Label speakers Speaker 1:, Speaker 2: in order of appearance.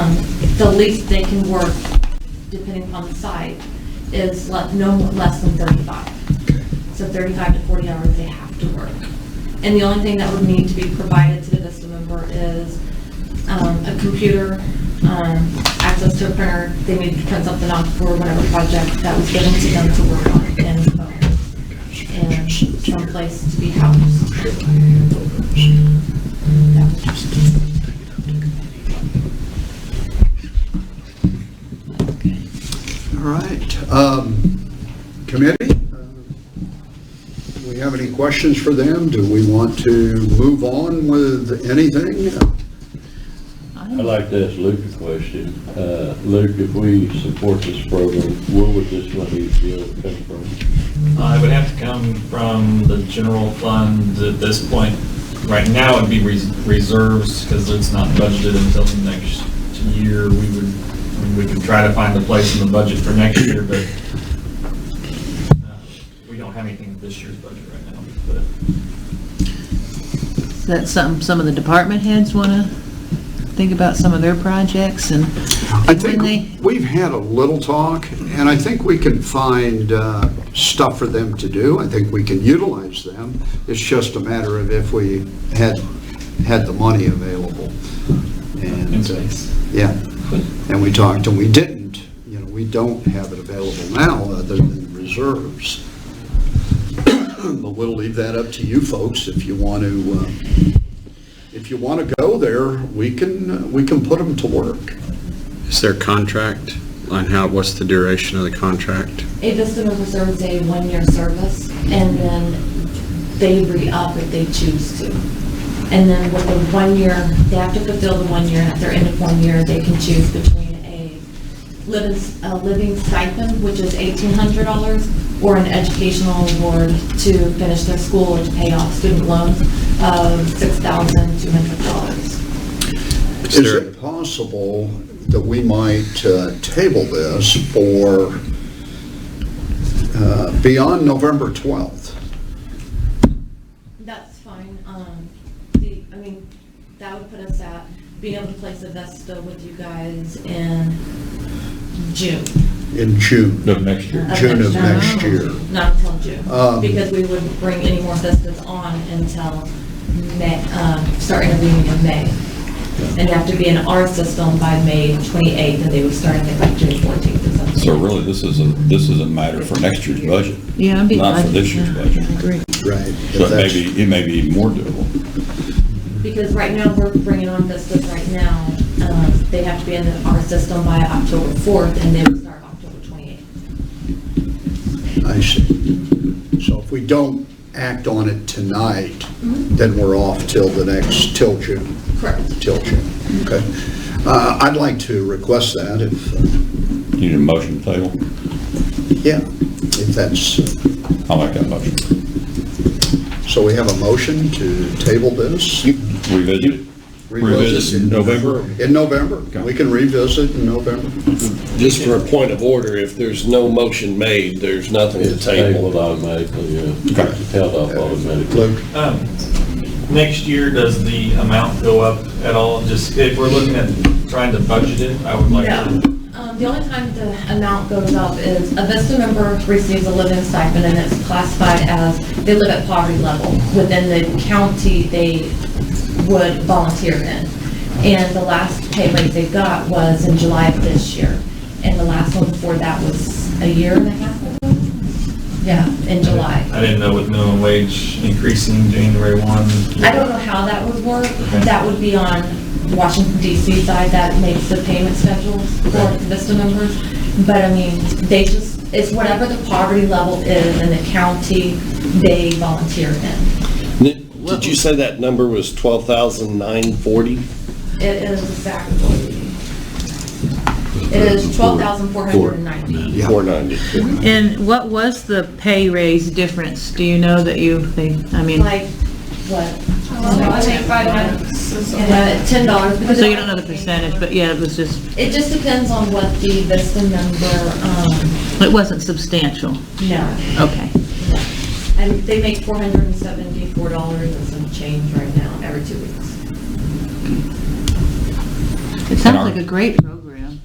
Speaker 1: um, the least they can work, depending upon the site, is le- no more- less than 35. So 35 to 40 hours they have to work. And the only thing that would need to be provided to the Vista member is um, a computer, um, access to a printer. They need to print something off for whatever project that was given to them to work on and, um, and someplace to be housed. That was just-
Speaker 2: All right, um, committee, uh, do we have any questions for them? Do we want to move on with anything?
Speaker 3: I'd like to ask Luke a question. Uh, Luke, if we support this program, where would this money be able to come from?
Speaker 4: Uh, It would have to come from the general fund at this point. Right now, it'd be res- reserves because it's not budgeted until next year. We would, I mean, we could try to find a place in the budget for next year, but uh, we don't have anything in this year's budget right now. But
Speaker 5: Is that something some of the department heads want to think about some of their projects and
Speaker 2: I
Speaker 5: when they,
Speaker 2: think we've had a little talk, and I think we can find uh, stuff for them to do. I think we can utilize them. It's just a matter of if we had, had the money available. And,
Speaker 4: In
Speaker 2: uh,
Speaker 4: space.
Speaker 2: Yeah, and we talked, and we didn't. You know, we don't have it available now, other than reserves. But we'll leave that up to you folks if you want to, uh, if you want to go there, we can, uh, we can put them to work.
Speaker 6: Is there a contract on how, what's the duration of the contract?
Speaker 1: A Vista member serves a one-year service, and then they re-up if they choose to. And then with the one year, they have to fulfill the one year, and at their end of one year, they can choose between a living, a living stipend, which is eighteen hundred dollars, or an educational award to finish their school or to pay off student loans of six thousand two hundred dollars.
Speaker 2: Is it possible that we might uh, table this for uh, beyond November 12th?
Speaker 1: That's fine. Um, the, I mean, that would put us at being able to place a Vesta with you guys in June.
Speaker 2: In June?
Speaker 3: No, next year.
Speaker 2: June of next
Speaker 5: Oh.
Speaker 2: year.
Speaker 1: Not until June,
Speaker 2: Um,
Speaker 1: because we wouldn't bring any more Vestas on until May, um, start interviewing in May. And have to be in our system by May 28th, and they would start, I think, like June 14th or something.
Speaker 7: So really, this is a, this is a matter for next year's budget.
Speaker 5: yeah, I'd be.
Speaker 7: Not for this year's budget.
Speaker 5: I agree.
Speaker 2: Right. if
Speaker 7: So it may
Speaker 2: that's-
Speaker 7: be, it may be even more doable.
Speaker 1: Because right now, we're bringing on Vistas right now, um, they have to be in our system by October 4th, and they would start October 28th.
Speaker 2: I see. So if we don't act on it tonight, then we're off till the next, till June,
Speaker 1: Correct.
Speaker 2: till June. Okay. Uh, I'd like to request that if, uh,
Speaker 7: You Need a motion table?
Speaker 2: yeah, if that's, uh,
Speaker 7: I like that motion.
Speaker 2: so we have a motion to table this?
Speaker 7: Revisit it.
Speaker 2: Revisit in November? In November. We can revisit in November.
Speaker 8: Just for a point of order, if there's no motion made, there's nothing to
Speaker 3: It's
Speaker 8: table.
Speaker 3: tabled automatically, yeah.
Speaker 7: Okay.
Speaker 3: It's held off automatically.
Speaker 2: Luke?
Speaker 4: um, Next year, does the amount go up at all? Just if we're looking at trying to budget it, I would like
Speaker 1: No.
Speaker 4: to.
Speaker 1: Um, The only time the amount goes up is a VESTA member receives a living stipend and it's classified as, they live at poverty level within the county they would volunteer in. And the last pay rate they got was in July of this year. And the last one before that was a year and a half ago? Yeah, in July.
Speaker 4: I didn't know with minimum wage increasing January 1.
Speaker 1: I don't know how that would work. That would be on Washington DC side that makes the payment schedules for Vista members. But I mean, they just, it's whatever the poverty level is in the county they volunteer in.
Speaker 8: Ni- Did you say that number was 12,940?
Speaker 1: It is exactly, it is twelve thousand four hundred and ninety.
Speaker 8: 490.
Speaker 5: And what was the pay raise difference? Do you know that you, they, I mean,
Speaker 1: Like, what?
Speaker 9: I think five minutes is-
Speaker 1: And, uh, ten dollars. because
Speaker 5: so
Speaker 1: it-
Speaker 5: you don't know the percentage, but yeah, it was just,
Speaker 1: It just depends on what the Vista member, um,
Speaker 5: it wasn't substantial.
Speaker 1: no.
Speaker 5: Okay.
Speaker 1: And they make four hundred and seventy-four dollars and some change right now, every two weeks.
Speaker 5: It sounds like a great program.